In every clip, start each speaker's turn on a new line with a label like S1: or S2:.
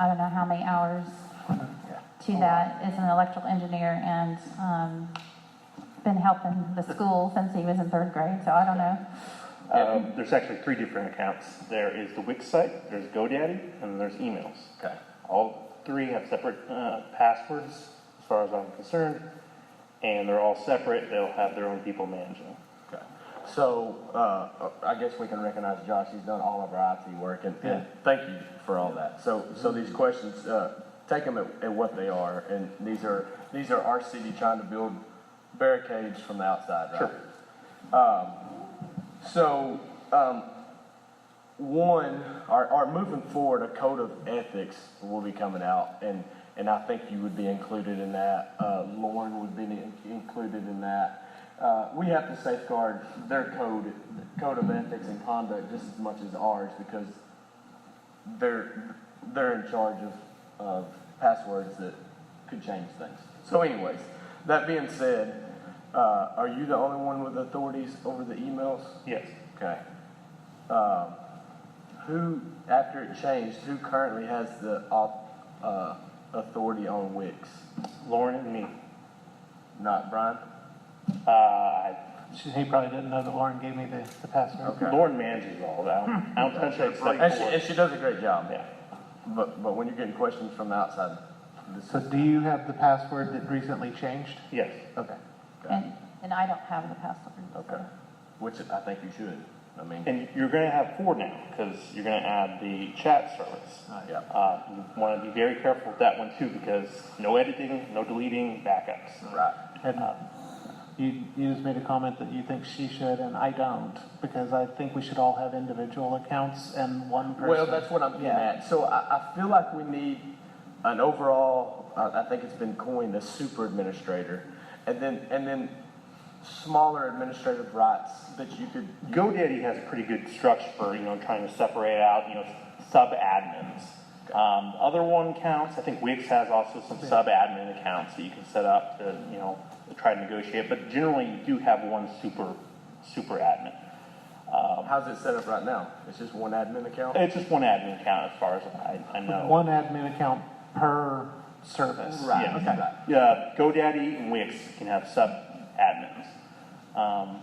S1: I don't know how many hours to that as an electrical engineer and, um, been helping the school since he was in third grade, so I don't know.
S2: Um, there's actually three different accounts. There is the Wix site, there's GoDaddy, and then there's emails.
S3: Okay.
S2: All three have separate uh, passwords, as far as I'm concerned, and they're all separate. They'll have their own people managing. them.
S3: Okay. So, uh, I guess we can recognize Josh, he's done all of our IT work, and, and thank you for all that. So, so these questions, uh, take them at, at what they are, and these are, these are our city trying to build barricades from the outside, right? Um,
S2: Sure.
S3: So, um, one, our, our moving forward, a code of ethics will be coming out, and, and I think you would be included in that. Uh, Lauren would be in- included in that. Uh, we have to safeguard their code, code of ethics and conduct just as much as ours because they're, they're in charge of, of passwords that could change things. So anyways, that being said, uh, are you the only one with authorities over the emails?
S2: Yes.
S3: Okay. Um, who, after it changed, who currently has the au- uh, authority on Wix?
S2: Lauren and me.
S3: Not Brian?
S2: Uh, I-
S4: She, he probably didn't know that Lauren gave me the, the password.
S3: Okay.
S2: Lauren manages all that. I don't- I don't touch that except
S3: And she,
S2: for-
S3: and she does a great job.
S2: Yeah.
S3: But, but when you're getting questions from the outside, this
S4: So
S3: is,
S4: do you have the password that recently changed?
S2: Yes.
S3: okay. Okay.
S1: And, and I don't have the password. so.
S3: Okay. Which I think you should. I mean,
S2: And you're going to have four now because you're going to add the chat service.
S3: yeah.
S2: Uh, you want to be very careful with that one too because no editing, no deleting, backups.
S3: Right.
S4: And you, you just made a comment that you think she should, and I don't, because I think we should all have individual accounts and one person.
S3: Well, that's what I'm getting
S4: Yeah.
S3: at. So I, I feel like we need an overall, I, I think it's been coined a super administrator, and then, and then smaller administrative rights that you could,
S2: GoDaddy has a pretty good structure for, you know, trying to separate out, you know, sub-admins. Um, other one counts, I think Wix has also some sub-admin accounts that you can set up to, you know, try to negotiate, but generally you do have one super, super admin.
S3: um, how's it set up right now? It's just one admin account?
S2: It's just one admin account as far as I, I know.
S4: One admin account per service.
S3: Right,
S2: Yeah.
S3: okay.
S2: Yeah, GoDaddy and Wix can have sub admins. Um,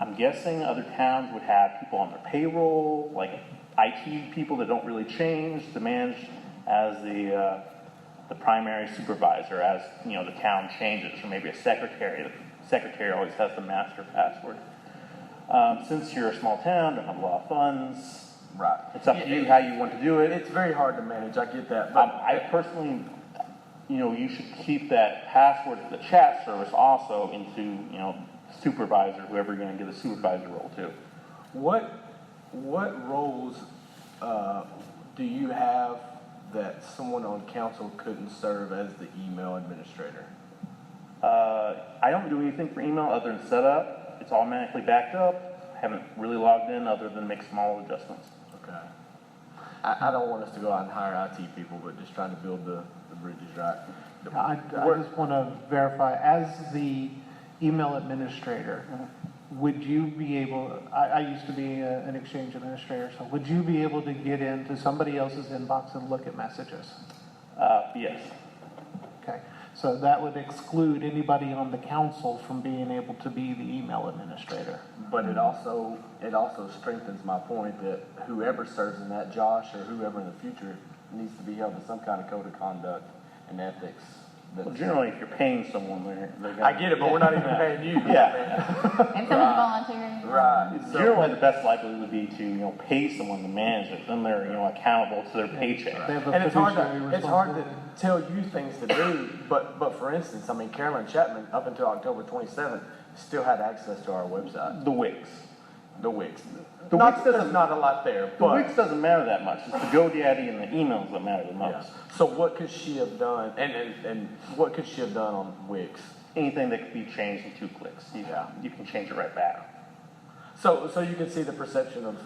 S2: I'm guessing other towns would have people on their payroll, like IT people that don't really change, the manage as the, uh, the primary supervisor as, you know, the town changes, or maybe a secretary. The Secretary always has the master password. Um, since you're a small town, don't have a lot of funds,
S3: Right.
S2: it's up to you how you want to do it.
S3: It's very hard to manage, I get that,
S2: Um,
S3: but
S2: I personally, you know, you should keep that password to the chat service also into, you know, supervisor, whoever you're gonna give the supervisor role to.
S3: What what roles uh, do you have that someone on council couldn't serve as the email administrator?
S2: Uh, I don't do anything for email other than setup. It's automatically backed up. Haven't really logged in other than make small adjustments.
S3: Okay. I, I don't want us to go out and hire IT people, but just trying to build the, the bridges right.
S4: I, I just want to verify, as the email administrator, would you be able, I, I used to be a- an exchange administrator, so would you be able to get into somebody else's inbox and look at messages?
S2: Uh, yes,
S4: Okay, so that would exclude anybody on the council from being able to be the email administrator.
S3: But it also it also strengthens my point that whoever serves in that, Josh or whoever in the future, needs to be held to some kind of code of conduct and ethics.
S2: well,
S3: That's,
S2: generally, if you're paying someone, they're, they're gonna.
S3: I get it, but we're not even paying you.
S2: Yeah.
S1: If someone's volunteering.
S3: Right. So-
S2: Generally, the best likelihood would be to, you know, pay someone to manage it, then they're, you know, accountable to their paycheck.
S4: They have a
S3: and it's hard to,
S4: fiduciary
S3: it's hard to
S4: responsibility.
S3: tell you things to do, but, but for instance, I mean, Carolyn Chapman, up until October twenty-seventh, still had access to our website,
S2: The Wix.
S3: the Wix.
S2: The
S3: Not,
S2: Wix
S3: there's
S2: doesn't-
S3: not a lot there,
S2: The
S3: but,
S2: Wix doesn't matter that much. It's the GoDaddy and the emails that matter the
S3: yeah.
S2: most.
S3: So what could she have done, and, and, and what could she have done on Wix?
S2: Anything that could be changed in two clicks, you,
S3: Yeah.
S2: you can change it right back.
S3: So, so you can see the perception of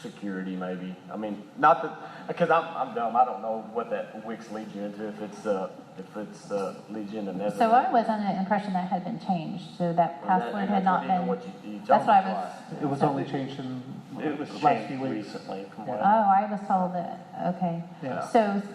S3: security, maybe. I mean, not that, because I'm, I'm dumb, I don't know what that Wix leads you into, if it's, uh, if it's, uh, leads you into Netherlands.
S1: So I was under the impression that had been changed, so that
S3: Well, that-
S1: password
S3: that's
S1: had not
S3: even
S1: been.
S3: what you- you
S1: That's
S3: told
S1: what I
S3: me
S1: was.
S4: It was only changed in
S2: It was
S4: last
S2: changed
S4: few weeks.
S2: recently from what
S1: Oh, I was told that, okay.
S4: Yeah.
S1: So